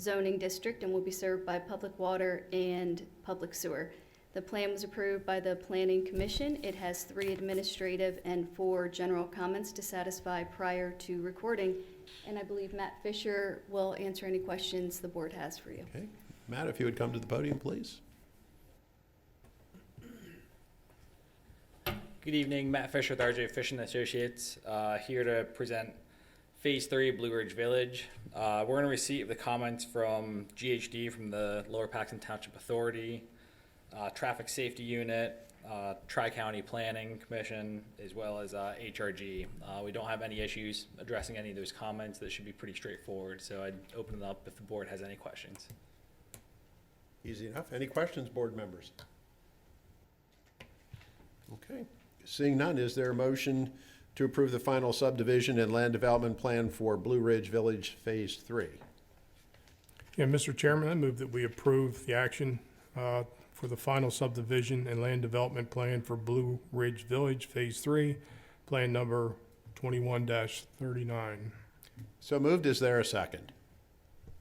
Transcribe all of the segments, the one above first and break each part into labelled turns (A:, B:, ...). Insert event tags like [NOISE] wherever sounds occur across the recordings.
A: zoning district and will be served by public water and public sewer. The plan was approved by the Planning Commission. It has three administrative and four general comments to satisfy prior to recording. And I believe Matt Fisher will answer any questions the board has for you.
B: Okay, Matt, if you would come to the podium, please.
C: Good evening, Matt Fisher with RJ Fish and Associates, uh, here to present Phase Three Blue Ridge Village. Uh, we're in receipt of the comments from GHD from the Lower Paxton Township Authority, uh, Traffic Safety Unit, uh, Tri County Planning Commission, as well as uh, HRG. Uh, we don't have any issues addressing any of those comments. That should be pretty straightforward. So I'd open it up if the board has any questions.
B: Easy enough. Any questions, board members? Okay, seeing none, is there a motion to approve the final subdivision and land development plan for Blue Ridge Village Phase Three?
D: Yeah, Mr. Chairman, I move that we approve the action uh, for the final subdivision and land development plan for Blue Ridge Village Phase Three, Plan Number twenty-one thirty-nine.
B: So moved, is there a second?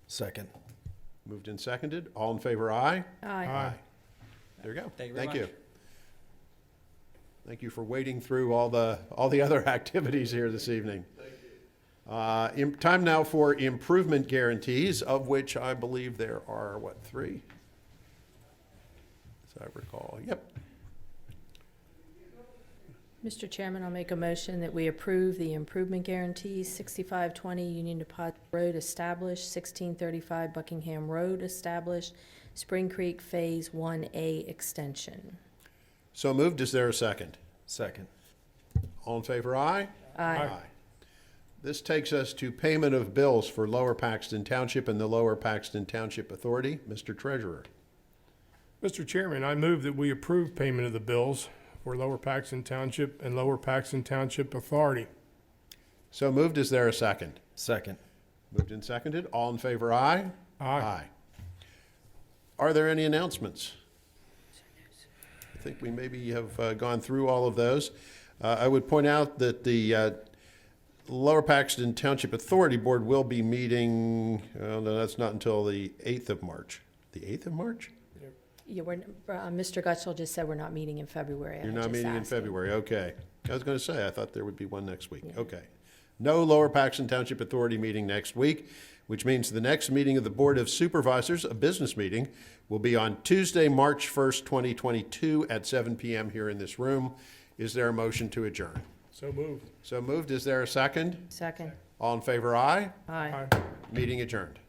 E: Second.
B: Moved and seconded, all in favor, aye?
F: Aye.
B: There you go.
C: Thank you very much.
B: Thank you for wading through all the, all the [LAUGHS] other activities here this evening. Uh, im- Time now for improvement guarantees, of which I believe there are, what, three? As I recall, yep.
F: Mr. Chairman, I'll make a motion that we approve the improvement guarantees, 6520 Union Depot Road established, 1635 Buckingham Road established, Spring Creek Phase 1A extension.
B: So moved, is there a second?
E: Second.
B: All in favor, aye?
F: Aye.
B: This takes us to payment of bills for Lower Paxton Township and the Lower Paxton Township Authority. Mr. Treasurer.
D: Mr. Chairman, I move that we approve payment of the bills for Lower Paxton Township and Lower Paxton Township Authority.
B: So moved, is there a second?
E: Second.
B: Moved and seconded. All in favor, aye?
D: Aye.
B: Are there any announcements? I think we maybe have uh, gone through all of those. Uh, I would point out that the uh, Lower Paxton Township Authority Board will be meeting, oh, no, that's not until the 8th of March. The 8th of March?
F: Yeah, we're, uh, Mr. Gutschall just said we're not meeting in February. I
B: You're
F: was
B: not
F: just
B: meeting in
F: asking.
B: February, okay. I was going to say, I thought there would be one next week, okay. No Lower Paxton Township Authority meeting next week, which means the next meeting of the Board of Supervisors, a business meeting, will be on Tuesday, March 1st, 2022, at 7 PM here in this room. Is there a motion to adjourn?
D: So moved.
B: So moved, is there a second?
F: Second.
B: All in favor, aye?
F: Aye.
D: Aye.
B: Meeting adjourned.